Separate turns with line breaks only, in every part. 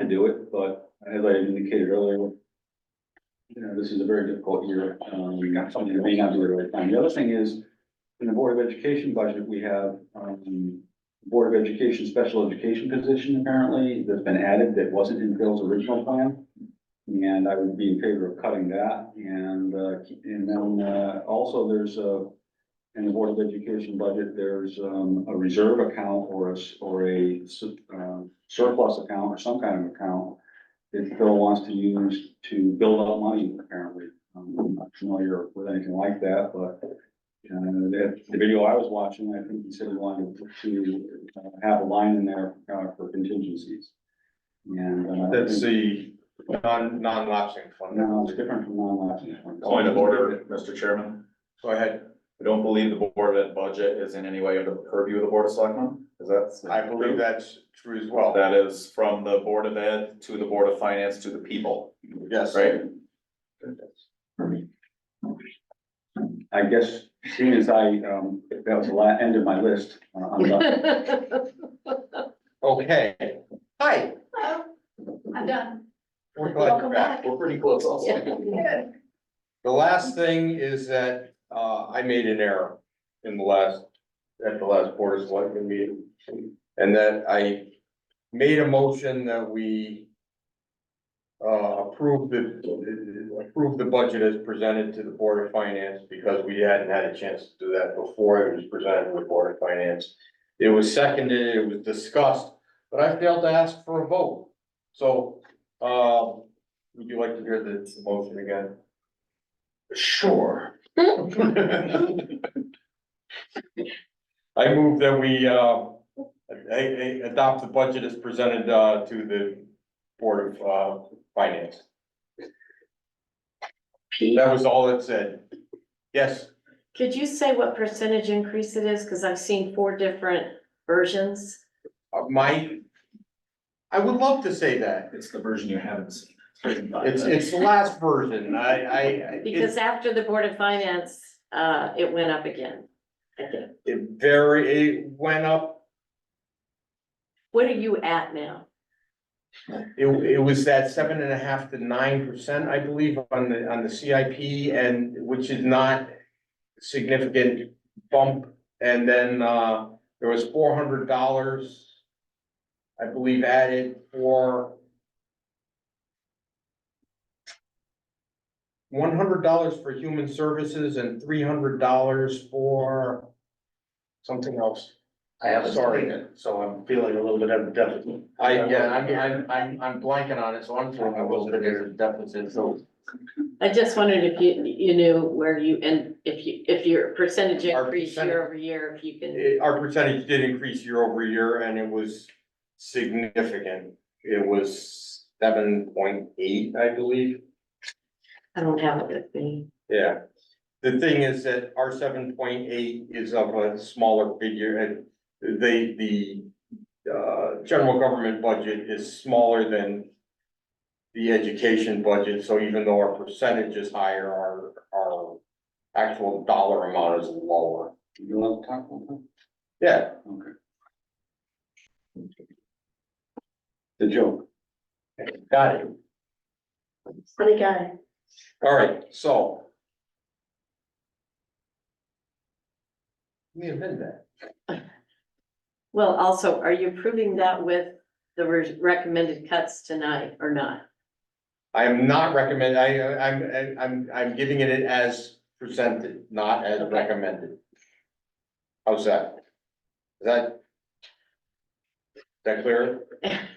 to do it, but as I indicated earlier, you know, this is a very difficult year. Um, we got something that may not do it at the right time. The other thing is, in the Board of Education budget, we have, um, Board of Education Special Education position apparently that's been added that wasn't in Bill's original plan. And I would be in favor of cutting that and, uh, keep- and then, uh, also there's a, in the Board of Education budget, there's, um, a reserve account or a, s- or a, su- um, surplus account or some kind of account that Bill wants to use to build up money apparently. Um, I'm not familiar with anything like that, but uh, that, the video I was watching, I think he said he wanted to uh, have a line in there uh, for contingencies. And. uh, I
That's
think-
the non, non-lapsing fund.
No, it's different from non-lapsing. funds.
Point of order, Mr. Chairman.
Go ahead.
I don't believe the Board of Ed budget is in any way under the purview of the Board of Selectmen. Is that?
I believe that's true as well.
That is from the Board of Ed to the Board of Finance to the people,
Yes.
right?
I guess, seeing as I, um, that was the la, end of my list, uh, I'm done.
Okay. Hi.
I'm done.
We're glad you're
Welcome
back.
back.
We're pretty close also.
The last thing is that, uh, I made an error in the last, at the last board of selectmen meeting. And that I made a motion that we uh, approve the, approve the budget as presented to the Board of Finance because we hadn't had a chance to do that before it was presented to the Board of Finance. It was seconded, it was discussed, but I failed to ask for a vote. So, uh, would you like to hear the the motion again? Sure. I move that we, uh, a- a- adopt the budget as presented, uh, to the Board of, uh, Finance. That was all it said. Yes,
Could you say what percentage increase it is? Cause I've seen four different versions.
uh, my, I would love to say that.
It's the version you haven't seen.
It's, it's the last version. I, I, I-
Because
it,
after the Board of Finance, uh, it went up again, I think.
it very, it went up,
What are you at now?
it, it was that seven and a half to nine percent, I believe, on the, on the CIP and which is not significant bump. And then, uh, there was four hundred dollars, I believe, added for one hundred dollars for human services and three hundred dollars for something else. I haven't seen it, so I'm feeling a little bit of a deficit. I, yeah, I'm, I'm, I'm, I'm blanking on it, so I'm feeling a little bit of a deficit, so.
I just wondered if you, you knew where you, and if you, if your percentage
Our
increase
percentage-
year over year, if you can.
Eh, our percentage did increase year over year and it was significant. It was seven point eight, I believe.
I don't have it with me.
Yeah. The thing is that our seven point eight is of a smaller figure and they, the uh, general government budget is smaller than the education budget, so even though our percentage is higher, our, our actual dollar amount is lower.
You want to talk one time?
Yeah,
Okay. The joke.
got it.
Funny guy.
All right, so. We amend that.
Well, also, are you approving that with the re- recommended cuts tonight or not?
I am not recommend, I, I'm, I'm, I'm giving it as presented, not as
Okay.
recommended. How's that? Is that? is That clear?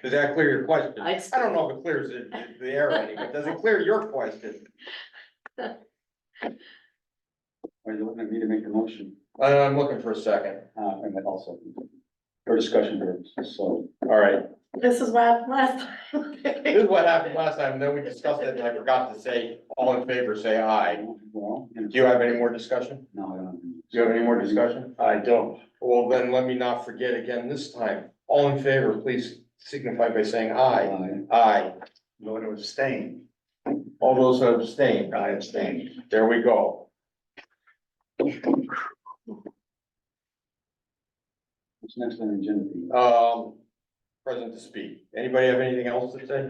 Does that clear your question?
I-
I don't know if it clears the, the air anyway. Does it clear your question?
Are you looking at me to make the motion?
Uh, I'm looking for a second.
Uh, and then also for discussion purposes, so.
All right.
This is what happened last
This
time.
is what happened last time. Then we discussed it and I forgot to say, all in favor, say aye.
Well, and
Do you have any more discussion?
no, I don't.
Do you have any more discussion?
I don't.
Well, then let me not forget again this time. All in favor, please signify by saying aye.
Uh,
Aye.
Going to abstain.
All those who abstain,
I abstain.
there we go.
What's next on the agenda?
Um, present to speak. Anybody have anything else to say?